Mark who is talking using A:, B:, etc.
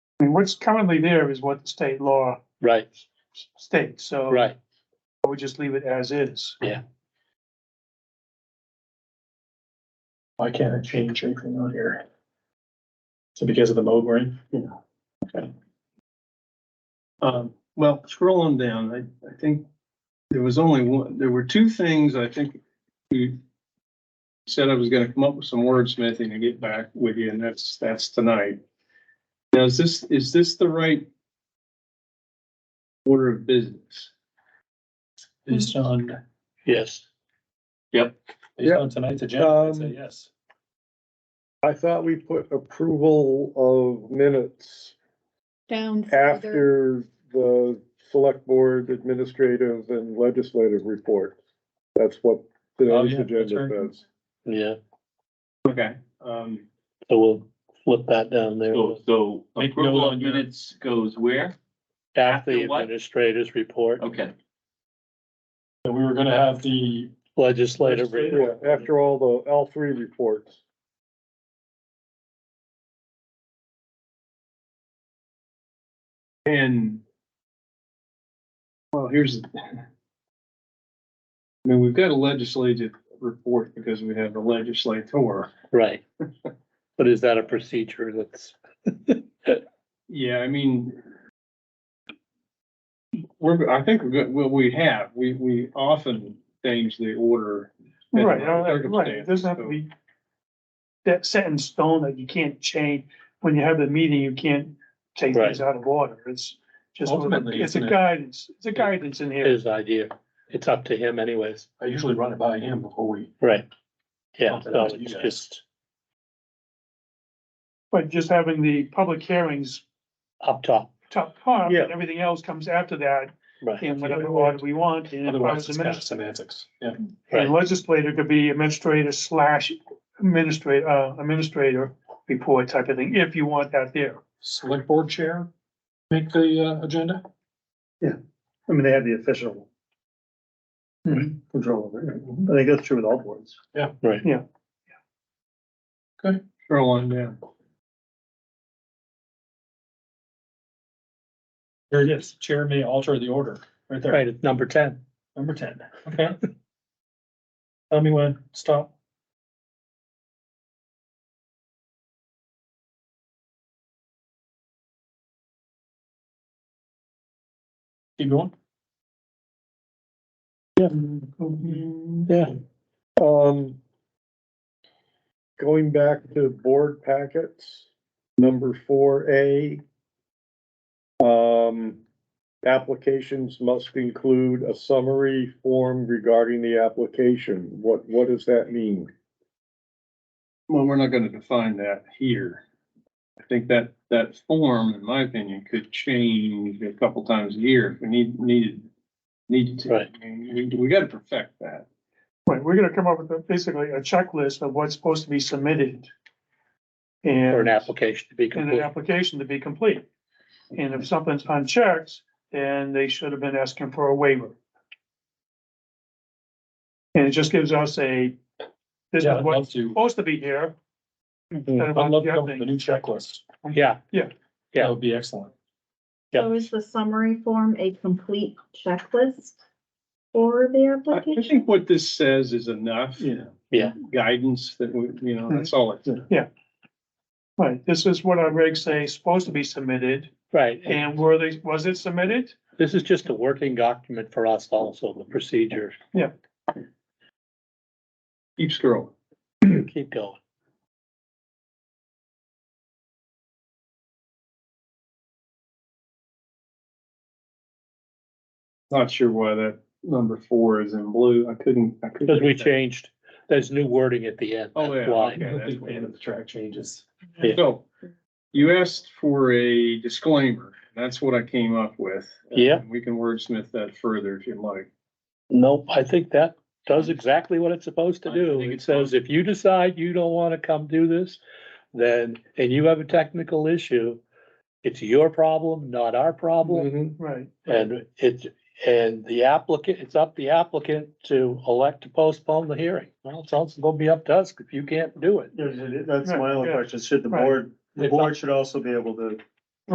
A: I mean, what's currently there is what the state law
B: Right,
A: states, so.
B: right.
A: We just leave it as is.
C: Why can't I change anything on here? So because of the mode we're in? Yeah. Okay.
D: Um, well, scrolling down, I, I think there was only one, there were two things I think you said I was gonna come up with some wordsmithing and get back with you, and that's, that's tonight. Now, is this, is this the right order of business?
C: Based on,
B: Yes.
C: based on tonight's agenda, I'd say
E: Um,
C: yes.
E: I thought we put approval of minutes
F: down. further.
E: after the select board administrative and legislative reports. That's what
C: Oh,
E: today's
C: yeah, that's
E: agenda
C: right.
E: says.
B: Yeah,
D: Okay, um,
B: so we'll flip that down there.
G: So, so
C: Make
G: approval
C: note
G: of
C: on your-
G: minutes goes where?
B: After the
G: after what?
B: administrators report,
G: Okay,
C: So we were gonna have the,
B: legislative report.
E: Yeah, after all the, all three reports.
D: and well, here's I mean, we've got a legislative report because we have the legislator.
B: Right. But is that a procedure that's,
D: Yeah, I mean. We're, I think we're good, well, we have, we, we often change the order. depending
A: Right,
D: on the
A: uh, right, it doesn't have to
D: circumstance,
A: be that set in stone that you can't change. When you have the meeting, you can't take things out of order. It's just,
C: Ultimately,
A: it's a
C: isn't it-
A: guidance, it's a guidance in here.
B: his idea? It's up to him anyways.
C: I usually run it by him before we,
B: Right. Yeah,
C: Something up
B: so
C: to you
B: it's
C: guys.
B: just
A: But just having the public hearings
B: up top,
A: top part,
E: Yeah.
A: and everything else comes after that
B: right?
A: in whatever order we want. And if I was
C: otherwise it's
A: a
C: kind of
A: minis-
C: semantics, yeah.
A: and legislator could be administrator slash administrator, uh, administrator report type of thing, if you want that there.
C: Select board chair, make the, uh, agenda?
H: I mean, they have the official control over it.
C: Mm-hmm.
H: I think that's true with all boards.
D: Scroll on down.
C: There it is, chair may alter the order, right there,
B: Right, it's number ten.
C: number ten, okay? Tell me when, stop. Keep going.
B: Yeah.
E: Um, going back to board packets, number four A. Um, applications must include a summary form regarding the application. What, what does that mean?
D: Well, we're not gonna define that here. I think that, that form, in my opinion, could change a couple times a year if we need, needed, needed to.
B: Right.
D: I mean, We, we gotta perfect that.
A: Right, we're gonna come up with a- basically a checklist of what's supposed to be submitted.
B: For
A: And,
B: an application to be
A: and an
B: complete.
A: application to be complete. And if something's unchecked, then they should have been asking for a waiver. And it just gives us a, this
C: Yeah,
A: is
C: I'd
A: what's
C: love to,
A: supposed to be here. instead
C: I'd
A: of
C: love to
A: the
C: come up
A: other
C: with a
A: thing.
C: new checklist,
B: Yeah, Yeah.
C: that would be excellent.
B: Yeah.
F: So is the summary form a complete checklist for the
D: I, I
F: application?
D: think what this says is enough.
C: Yeah.
B: Yeah.
D: Guidance that we, you know, that's all it's.
A: Right, this is what our regs say is supposed to be submitted,
B: right. And
A: and were they, was it submitted?
B: This is just a working document for us also, the procedure.
D: Keep scrolling.
B: Keep going.
D: Not sure why that number four is in blue. I couldn't. I couldn't-
B: Because we changed, there's new wording at the end.
D: Oh,
B: that's
D: yeah,
B: why.
D: okay.
C: I'm a
D: that's
C: big
D: what-
C: fan of the track changes.
B: yeah.
D: So you asked for a disclaimer. That's what I came up with.
B: Yeah.
D: We can wordsmith that further if you'd like.
B: Nope, I think that does exactly what it's supposed to
D: Hmm. I
B: do.
D: think
B: It
D: it's
B: says if you decide you don't want to come do this, then, and you have a technical issue, it's your problem, not our problem.
A: Right,
B: And it's, and the applicant, it's up the applicant to elect to postpone the hearing. Well, it's also gonna be up to us if you can't do it.
H: That's
A: my
H: my
A: only
H: only question. Should the
A: Right.
H: board, the
B: If
H: board should also be able to